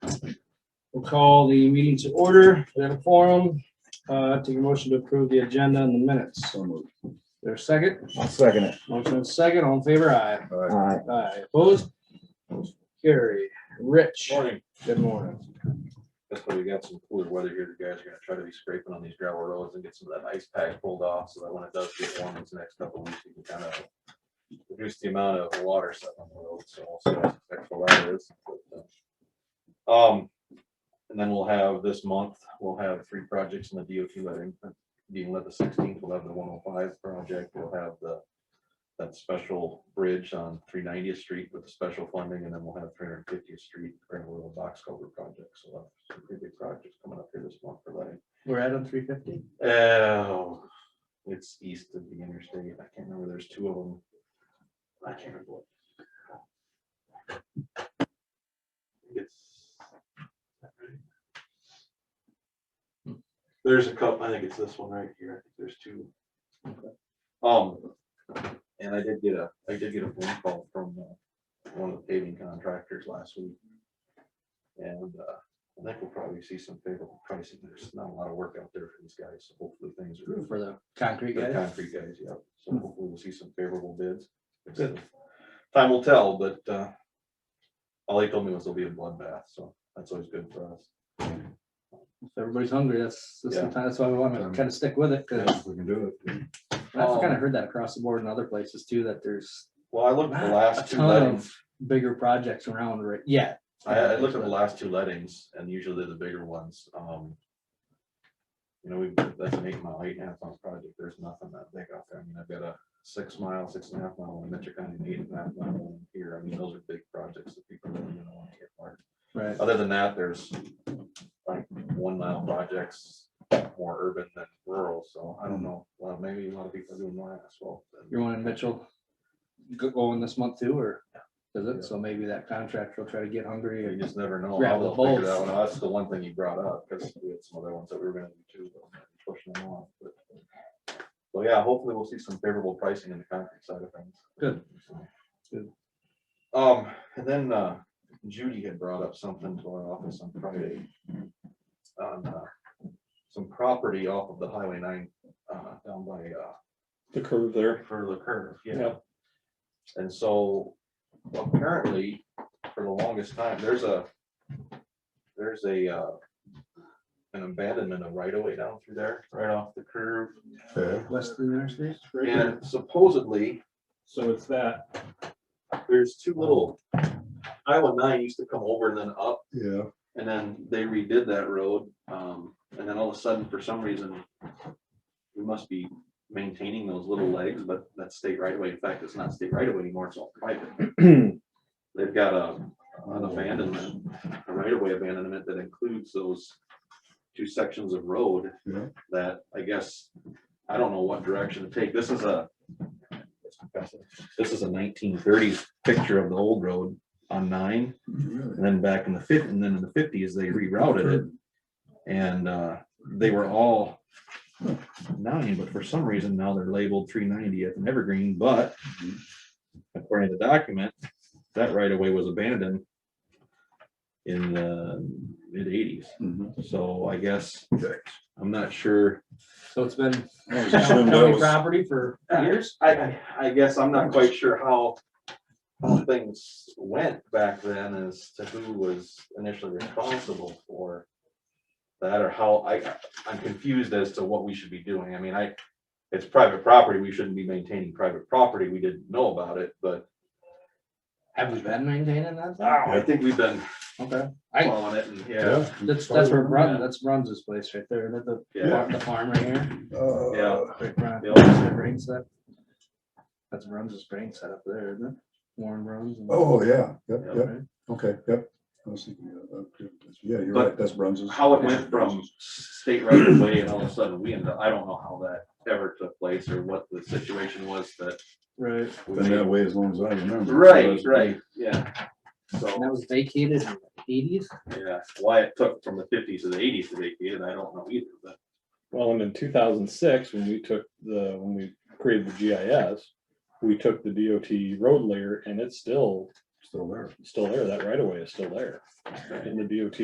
We'll call the meeting to order. We have a forum. Uh, take a motion to approve the agenda in the minutes. So moved. There's a second. I'll second it. Motion and second. All in favor, aye. All right. Aye. Aye. Opposed? Carry. Rich, Morning. good morning. That's why we got some cooler weather here. The guys are gonna try to be scraping on these gravel roads and get some of that ice pack pulled off, so that when it does get warm, it's the next couple of weeks, you can kind of reduce the amount of water set on the road, so also that's extra weather is. Um, and then we'll have this month, we'll have three projects in the DOT letting, being led the sixteenth, we'll have the one oh five project, we'll have the that special bridge on three ninetieth street with the special funding, and then we'll have three hundred fiftieth street, grand little box cover project, so we'll have some pretty big projects coming up here this month for letting. We're at on three fifty. Oh, it's east of the interstate. I can't remember. There's two of them. I can't remember. what- It's. There's a couple, I think it's this one right here. I think there's two. Um, and I did get a, I did get a phone call from uh, one of the paving contractors last week. And, uh, I think we'll probably see some favorable pricing. There's not a lot of work out there for these guys, so hopefully things are. For the concrete The guys. concrete guys, yeah. Hmm. So hopefully we'll see some favorable bids. It's, uh, Time will tell, but, uh, all he told me was there'll be a bloodbath, so that's always good for us. If everybody's hungry, that's, that's the Yeah. time- that's why we want to kind of stick with it, because We can do it. I've kind Um, of heard that across the board in other places too, that there's Well, I looked at the not a last two ton lettings. of bigger projects around right yet. I, I looked at the last two lettings and usually they're the bigger ones, um. You know, we, that's an eight mile, eight and a half mile project, there's nothing that big out there, I mean, I've got a six mile, six and a half mile one in Metro County, and eight and a half mile one here, I mean, those are big projects that people really don't want to get part. Right. Other than that, there's like one mile projects, more urban than rural, so I don't know, well, maybe a lot of people are doing more asphalt. than- You're wanting Mitchell go- going this month too, or does Yeah. it? So maybe that contractor will try to get hungry You and just never know. Grab the I'll figure that bolts. one out. That's the one thing you brought up, because we had some other ones that we were gonna do too. but I'm pushing them off, but- So yeah, hopefully we'll see some favorable pricing in the concrete side of things. Good. So. Good. Um, and then uh, Judy had brought up something to our office on Friday. On uh, some property off of the Highway nine, uh, down by uh, the curve there. for the curve, yeah. Yeah. And so apparently, for the longest time, there's a, there's a, uh, an abandonment of right of way down through there, right off the curve. Okay. west of the interstate. And supposedly, So it's that. there's two little, Iowa nine used to come over and then up, Yeah. and then they redid that road. Um, and then all of a sudden, for some reason, we must be maintaining those little legs, but that's state right of way. In fact, it's not state right of way anymore, it's all private. they've got a, an abandonment, a right of way abandonment that includes those two sections of road Yeah. that I guess, I don't know what direction to take. This is a this is a nineteen thirties picture of the old road on nine, Mm-hmm. and then back in the fifth, and then in the fifties, they rerouted it. And, uh, they were all nine, but for some reason now they're labeled three ninetieth and Evergreen, but according to the document, that right away was abandoned in the mid eighties. Mhm. So I guess, Okay. I'm not sure. So it's been I just assumed that county was- property for years. I, I, I guess I'm not quite sure how, how things went back then as to who was initially responsible for that or how, I, I'm confused as to what we should be doing. I mean, I, it's private property. We shouldn't be maintaining private property. We didn't know about it, but Have we been maintaining that? oh, I think we've been Okay, I- following it and, yeah, Yeah. that's, that's where Yeah. Brun, that's Bruns's place right there, that the, yeah. the farm right here. Uh, Yeah. Right, Brun- Yeah. that's their brain set. That's Bruns's brain set up there, isn't it? Warren Bruns. and- Oh, yeah. Yep, Yeah. yep. Right? Okay, yep. I was thinking, yeah, okay. Yeah, you're But right. That's Bruns's. how it went from state right of way and all of a sudden we ended up, I don't know how that ever took place or what the situation was that. Right, we Been made- that way as long as I remember. so Right, that's- right, yeah. and So, that was vacated in the eighties, yeah, why it took from the fifties to the eighties to make it, I don't know either, but Well, and in two thousand six, when we took the, when we created the GIS, we took the DOT road layer and it's still, Still there. still there. That right of way is still there. And the DOT